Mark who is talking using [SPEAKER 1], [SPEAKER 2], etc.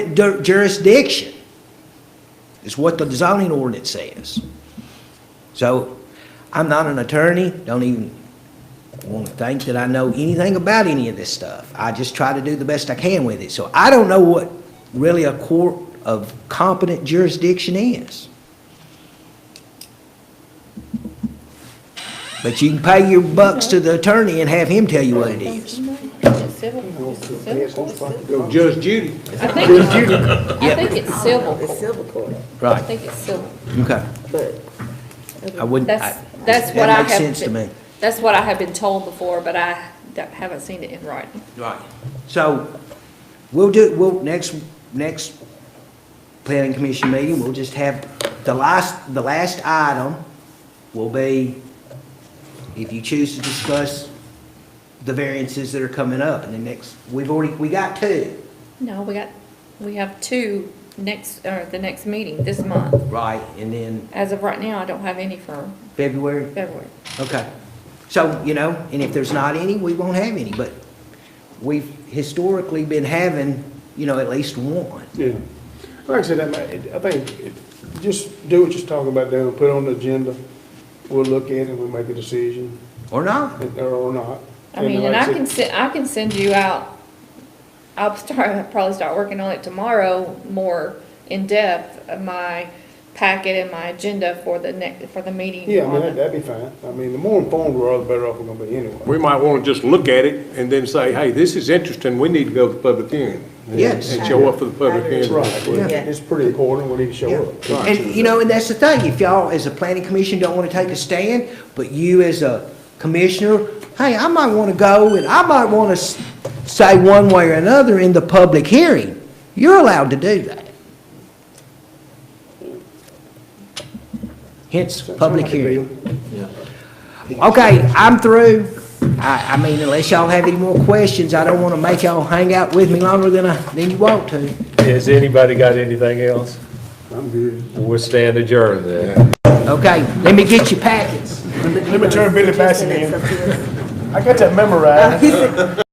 [SPEAKER 1] Jur- jurisdiction is what the zoning ordinance says. So I'm not an attorney, don't even want to think that I know anything about any of this stuff. I just try to do the best I can with it. So I don't know what really a court of competent jurisdiction is. But you can pay your bucks to the attorney and have him tell you what it is.
[SPEAKER 2] It's civil, it's civil court.
[SPEAKER 3] Go Judge Judy.
[SPEAKER 2] I think, I think it's civil
[SPEAKER 4] It's
[SPEAKER 2] court.
[SPEAKER 4] civil court,
[SPEAKER 2] I
[SPEAKER 1] Right,
[SPEAKER 2] think it's civil.
[SPEAKER 1] okay.
[SPEAKER 4] but
[SPEAKER 1] I wouldn't,
[SPEAKER 2] That's,
[SPEAKER 1] I-
[SPEAKER 2] that's what I
[SPEAKER 1] That
[SPEAKER 2] have.
[SPEAKER 1] makes sense to
[SPEAKER 2] been-
[SPEAKER 1] me.
[SPEAKER 2] That's what I have been told before, but I don't- haven't seen it in writing.
[SPEAKER 1] Right. So, we'll do, we'll, next, next planning commission meeting, we'll just have, the last, the last item will be, if you choose to discuss the variances that are coming up, and the next, we've already, we got two.
[SPEAKER 2] No, we got, we have two next, or the next meeting this month.
[SPEAKER 1] Right. And then
[SPEAKER 2] As of right now, I don't have any for
[SPEAKER 1] February,
[SPEAKER 2] February.
[SPEAKER 1] Okay. So, you know, and if there's not any, we won't have any, but we've historically been having, you know, at least one.
[SPEAKER 3] Yeah. Like I said, I might- I think, it- just do what you're talking about now, put it on the agenda. We'll look at it, we'll make a decision,
[SPEAKER 1] Or not.
[SPEAKER 3] and- or not.
[SPEAKER 2] I mean, and
[SPEAKER 3] like
[SPEAKER 2] I can
[SPEAKER 3] said,
[SPEAKER 2] send, I can send you out, I'll start, probably start working on it tomorrow, more in-depth, of my packet and my agenda for the next, for the meeting.
[SPEAKER 3] Yeah, I mean,
[SPEAKER 2] on
[SPEAKER 3] that-
[SPEAKER 2] the-
[SPEAKER 3] that'd be fine. I mean, the more informed we're all, the better off we're gonna be anyway.
[SPEAKER 5] We might want to just look at it and then say, hey, this is interesting, we need to go to the public hearing. and-
[SPEAKER 1] Yes.
[SPEAKER 5] And show up for the public hearing.
[SPEAKER 3] Right, well,
[SPEAKER 4] Yeah.
[SPEAKER 3] it's pretty important, we need to show up.
[SPEAKER 1] And, you know, and that's the thing, if y'all, as a planning commission, don't want to take a stand, but you as a commissioner, hey, I might want to go and I might want to say one way or another in the public hearing, you're allowed to do that. Hence, public hearing. Okay, I'm through. I, I mean, unless y'all have any more questions, I don't want to make y'all hang out with me longer than I, than you want to.
[SPEAKER 6] Has anybody got anything else?
[SPEAKER 3] I'm good.
[SPEAKER 6] We'll stand adjourned then.
[SPEAKER 1] Okay, let me get your packets.
[SPEAKER 3] Let me turn Billy
[SPEAKER 4] just in that
[SPEAKER 3] I got that memorized.